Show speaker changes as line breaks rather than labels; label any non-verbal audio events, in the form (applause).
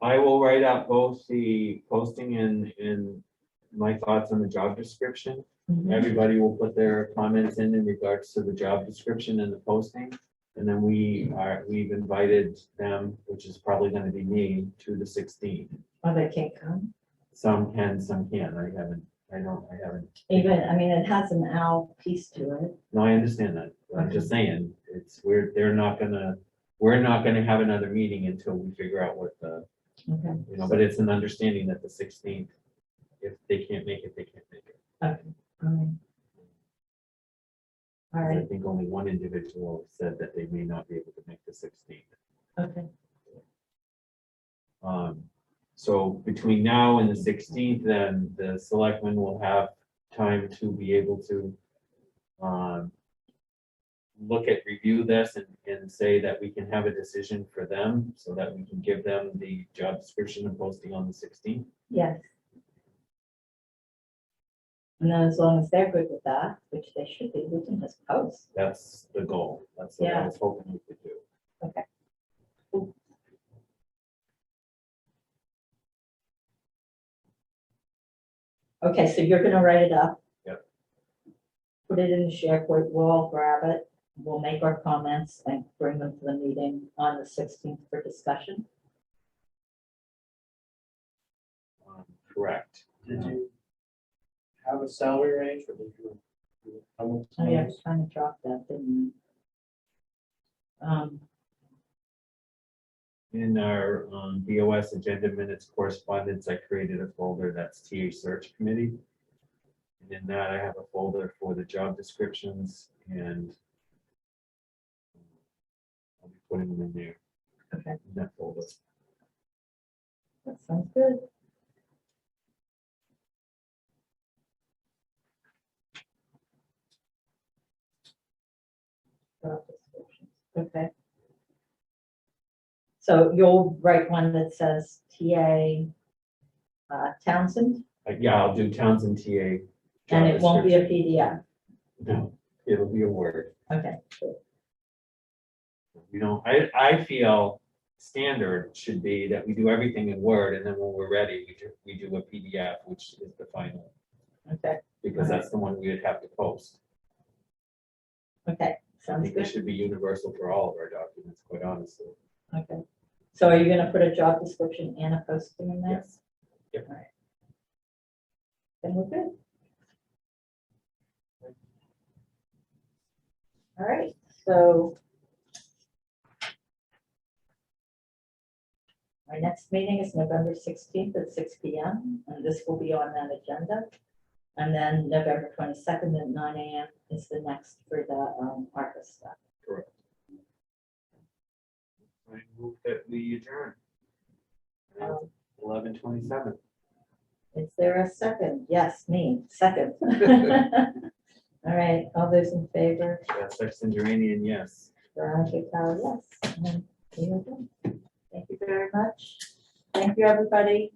I will write out both the posting and, and my thoughts on the job description.
Mm-hmm.
Everybody will put their comments in in regards to the job description and the posting. And then we are, we've invited them, which is probably gonna be me, to the sixteen.
Or they can't come.
Some can, some can. I haven't, I don't, I haven't.
Even, I mean, it has an owl piece to it.
No, I understand that. I'm just saying, it's, we're, they're not gonna, we're not gonna have another meeting until we figure out what the
Okay.
You know, but it's an understanding that the sixteenth, if they can't make it, they can't make it.
All
I
right,
think only one individual said that they may not be able to make the sixteenth.
okay.
Um, so between now and the sixteenth, then the selectmen will have time to be able to um, look at, review this and, and say that we can have a decision for them so that we can give them the job description and posting on the sixteenth.
Yes. And then as long as they're good with that, which they should be, we can just post.
That's the goal. That's what I
Yeah.
was hoping we could do.
Okay, so you're gonna write it up.
Yep.
Put it in the SharePoint, we'll all grab it, we'll make our comments and bring them to the meeting on the sixteenth for discussion.
Um, Correct.
Did you have a salary range or did you? you- I won't-
Oh, yeah, I was trying to drop that, didn't I? Um,
In our um, BOS agenda minutes correspondence, I created a folder that's TA search committee. And in that, I have a folder for the job descriptions and um, I'll be putting them in there.
Okay.
in That folder.
that sounds good. Job descriptions, Okay. So you'll write one that says TA uh, Townsend,
Uh, Yeah, I'll do Townsend TA.
and it won't be a
job
PDF,
description. No, it'll be a word.
okay.
You know, I, I feel standard should be that we do everything in Word and then when we're ready, we do, we do a PDF, which is the final.
Okay,
because that's the one we would have to post.
okay,
I
sounds
think it
good,
should be universal for all of our documents, quite honestly.
okay. So are you gonna put a job description and a posting in there?
Yes. Yep.
All right. Then we're good. All right, so. Our next meeting is November sixteenth at six P M, and this will be on that agenda. And then November twenty-second at nine A M is the next for the, um, ARPA stuff.
Correct. I move that we adjourn.
Um,
Eleven twenty-seven.
Is there a second? Yes, me, second. (laughs) All right, all those in favor,
Sexton Duranian, yes.
Veronica Cal, yes. and then we are done. Thank you very much. Thank you, everybody.